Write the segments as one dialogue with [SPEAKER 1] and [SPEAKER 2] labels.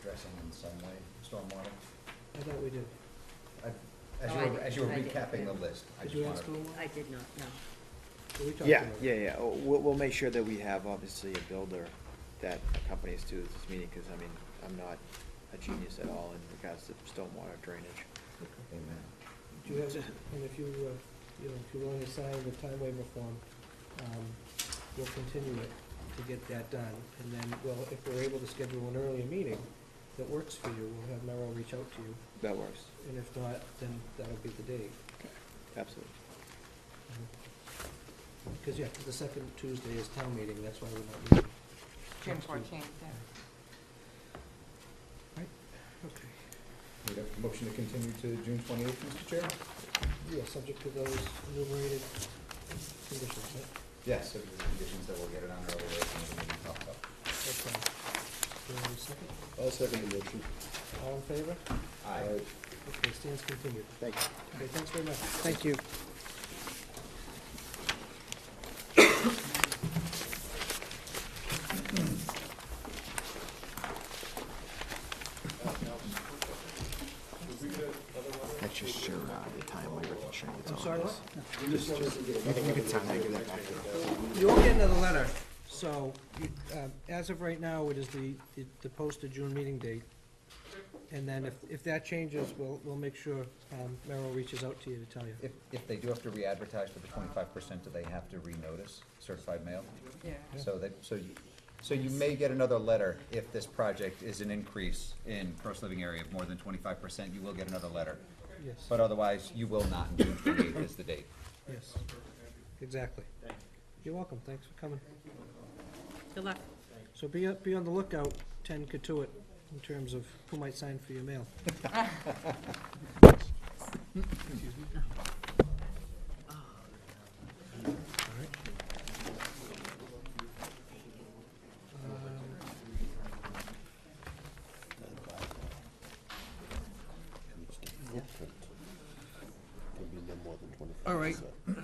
[SPEAKER 1] addressing in some way, stormwater?
[SPEAKER 2] I thought we did.
[SPEAKER 1] As
[SPEAKER 3] Oh,
[SPEAKER 1] you
[SPEAKER 3] I
[SPEAKER 1] were,
[SPEAKER 3] did-
[SPEAKER 1] as you were
[SPEAKER 3] I did,
[SPEAKER 1] recapping the
[SPEAKER 3] yeah.
[SPEAKER 1] list, I
[SPEAKER 2] Did
[SPEAKER 1] just
[SPEAKER 2] you add
[SPEAKER 1] wanted,
[SPEAKER 2] stormwater?
[SPEAKER 3] I did not, know.
[SPEAKER 2] We talked
[SPEAKER 4] Yeah,
[SPEAKER 2] about it.
[SPEAKER 4] yeah, yeah, Oh, we'll, we'll make sure that we have, obviously, a builder that accompanies to this meeting, because, I mean, I'm not a genius at all in regards to stormwater drainage.
[SPEAKER 1] amen.
[SPEAKER 2] Do you have, and if you, uh, you know, if you want to sign the time waiver form, um, we'll continue it to get that done. And then, well, if we're able to schedule an earlier meeting that works for you, we'll have Merrill reach out to you.
[SPEAKER 4] That works,
[SPEAKER 2] And if not, then that'll be the date.
[SPEAKER 4] absolutely.
[SPEAKER 2] Because, yeah, the second Tuesday is town meeting, that's why we're not meeting.
[SPEAKER 5] June
[SPEAKER 2] next week.
[SPEAKER 5] fourteenth, yeah.
[SPEAKER 2] Okay.
[SPEAKER 1] We have a motion to continue to June twenty-eighth, Mr. Chair?
[SPEAKER 2] Yeah, subject to those enumerated conditions, right?
[SPEAKER 1] Yes, if the conditions that we'll get it on earlier, and then we can talk about.
[SPEAKER 2] Okay. Do you want a second?
[SPEAKER 6] I'll second the motion.
[SPEAKER 2] All in favor?
[SPEAKER 1] Aye.
[SPEAKER 2] Okay, stands continued.
[SPEAKER 6] Thank you.
[SPEAKER 2] Okay, thanks very much.
[SPEAKER 4] Thank you.
[SPEAKER 6] That's just your, uh, the time waiver constraint, that's
[SPEAKER 2] I'm
[SPEAKER 6] all
[SPEAKER 2] sorry,
[SPEAKER 6] it
[SPEAKER 2] what?
[SPEAKER 6] is. You can, you can sign that, give that back to her.
[SPEAKER 2] You won't get another letter, so, you- um, as of right now, it is the, the- the posted June meeting date. And then if, if that changes, we'll, we'll make sure um, Merrill reaches out to you to tell you.
[SPEAKER 1] If, if they do have to re-advertise for the twenty-five percent, do they have to renotice certified mail?
[SPEAKER 5] Yeah.
[SPEAKER 1] So that, so you, so you may get another letter if this project is an increase in gross living area of more than twenty-five percent, you will get another letter.
[SPEAKER 2] Yes,
[SPEAKER 1] But uh, otherwise, you will not, June twenty-eighth is the date.
[SPEAKER 2] yes, exactly. You're welcome, thanks for coming.
[SPEAKER 3] Good luck.
[SPEAKER 2] So be, up- be on the lookout, ten Katuitt, in terms of who might sign for your mail. Alright.
[SPEAKER 6] It'll be no more than twenty-five.
[SPEAKER 2] All right,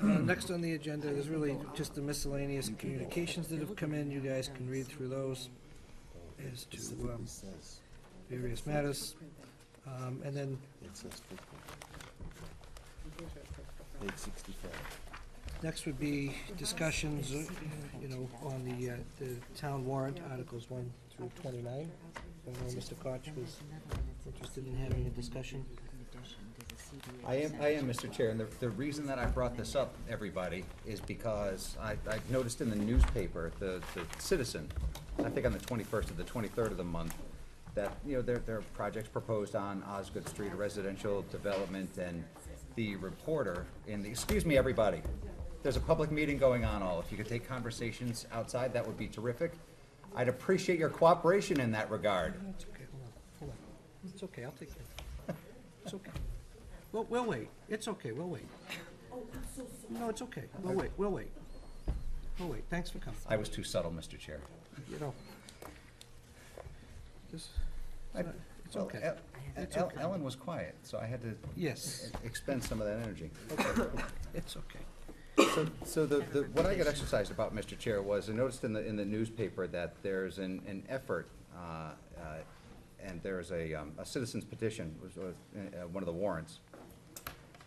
[SPEAKER 2] uh, next on the agenda is really just the miscellaneous communications that have come in, you guys can read through those as to um,
[SPEAKER 6] says,
[SPEAKER 2] various matters. Um, And then
[SPEAKER 6] it says Eight sixty-five.
[SPEAKER 2] next would be discussions, uh, you know, on the, uh, the town warrant articles one through twenty-nine. I know Mr. Koch was interested in having a discussion.
[SPEAKER 1] I am, I am, Mr. Chair, and the, the reason that I brought this up, everybody, is because I, I noticed in the newspaper, the, the Citizen, I think on the twenty-first or the twenty-third of the month, that, you know, there, there are projects proposed on Osgood Street, a residential development, and the reporter in the, excuse me, everybody, there's a public meeting going on, all, if you could take conversations outside, that would be terrific. I'd appreciate your cooperation in that regard.
[SPEAKER 2] It's okay, hold on, hold on. It's okay, I'll take it. It's okay. Well, we'll wait. It's okay, we'll wait. No, it's okay. We'll wait, we'll wait. We'll wait. Thanks for coming,
[SPEAKER 1] I was too subtle, Mr. Chair.
[SPEAKER 2] you know. Just,
[SPEAKER 1] I-
[SPEAKER 2] not- it's
[SPEAKER 1] well,
[SPEAKER 2] okay.
[SPEAKER 1] El-
[SPEAKER 3] It's
[SPEAKER 1] El-
[SPEAKER 3] okay.
[SPEAKER 1] Ellen was quiet, so I had to
[SPEAKER 2] yes,
[SPEAKER 1] expend some of that energy.
[SPEAKER 2] it's okay.
[SPEAKER 1] So, so the, the, what I got exercised about, Mr. Chair, was I noticed in the, in the newspaper that there's an, an effort, uh, uh, and there's a, um, a citizen's petition, was, was, uh, one of the warrants,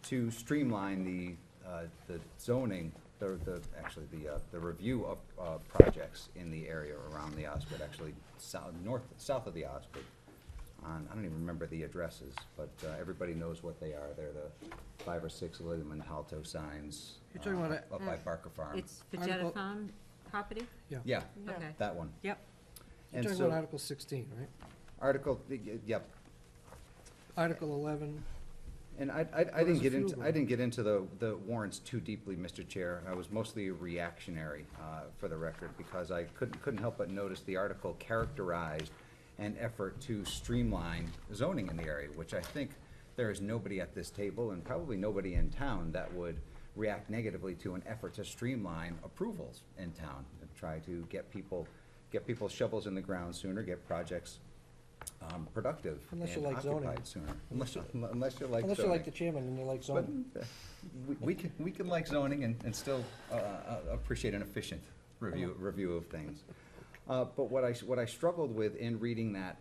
[SPEAKER 1] to streamline the, uh, the zoning, the, the, actually, the, uh, the review of, uh, projects in the area around the Osgood, actually, south, north, south of the Osgood. On, I don't even remember the addresses, but, uh, everybody knows what they are. They're the five or six William and Halto signs.
[SPEAKER 2] You're talking about mm.
[SPEAKER 1] uh,
[SPEAKER 2] it-
[SPEAKER 1] Up by Barker Farm.
[SPEAKER 3] It's
[SPEAKER 2] Article-
[SPEAKER 3] Fajetta Farm property?
[SPEAKER 1] Yeah,
[SPEAKER 5] Yeah.
[SPEAKER 3] Okay,
[SPEAKER 1] that one.
[SPEAKER 3] yep.
[SPEAKER 2] You're
[SPEAKER 1] And
[SPEAKER 2] talking
[SPEAKER 1] so-
[SPEAKER 2] about Article sixteen, right?
[SPEAKER 1] Article, y- y- yep,
[SPEAKER 2] Article eleven,
[SPEAKER 1] And I, I, I
[SPEAKER 2] Well, there's
[SPEAKER 1] didn't
[SPEAKER 2] a
[SPEAKER 1] get
[SPEAKER 2] few
[SPEAKER 1] into,
[SPEAKER 2] of
[SPEAKER 1] I
[SPEAKER 2] them.
[SPEAKER 1] didn't get into the, the warrants too deeply, Mr. Chair. I was mostly reactionary, uh, for the record, because I couldn't, couldn't help but notice the article characterized an effort to streamline zoning in the area, which I think there is nobody at this table and probably nobody in town that would react negatively to an effort to streamline approvals in town and try to get people, get people shovels in the ground sooner, get projects, um, productive and
[SPEAKER 2] Unless you like zoning.
[SPEAKER 1] occupied sooner. Unless, you- unless you like
[SPEAKER 2] unless you're
[SPEAKER 1] zoning.
[SPEAKER 2] like the chairman and you like
[SPEAKER 1] But
[SPEAKER 2] zoning.
[SPEAKER 1] uh, we- we can, we can like zoning and, and still uh, uh, appreciate an efficient review, review of things. Uh, But what I, s- what I struggled with in reading that